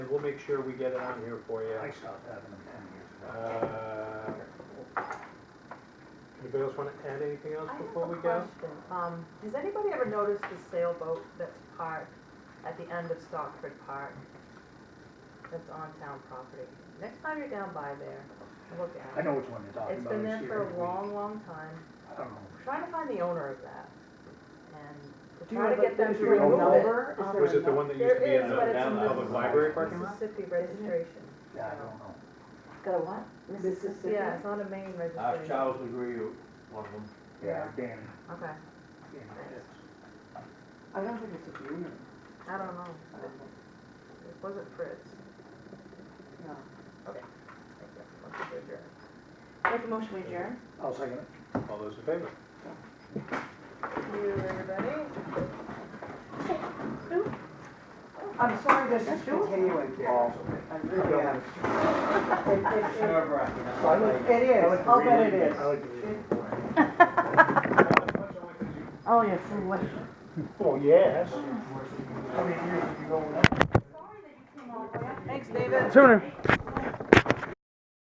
We'll make sure we get it on here for you. I stopped having them ten years ago. Uh, Anybody else want to add anything else I have before a we go? question. Um, does anybody ever notice the sailboat that's parked at the end of Stockford Park? That's on town property. Next time you're down by there, look at I it. know which one you're talking about. It's been I there see it for every a week. long, long time. I don't know. Trying to find the owner of that and to Do you try have to a, get them is to there a remove it. number? Is Was there Was a it the nu- one that used There to be in is, the but it's in down the- public library parking lot? Mississippi registration. Yeah, I don't know. Got a what? Mississippi? Yeah, it's not a main I've registration. Charles agree with one of them. Yeah, Yeah. Dan, Okay, Dan, it's, I don't think it's a union. I don't know. I don't think- It wasn't Fritz. No. Must be Bridger. Make a motion, we adjourn? I'll second it. All those in favor? Thank you, everybody. I'm sorry this is continuing, Paul. I really am. It- it- it- It is, I'll bet it is. Oh, yes, what? Oh, yes. Thanks, David. Sooner.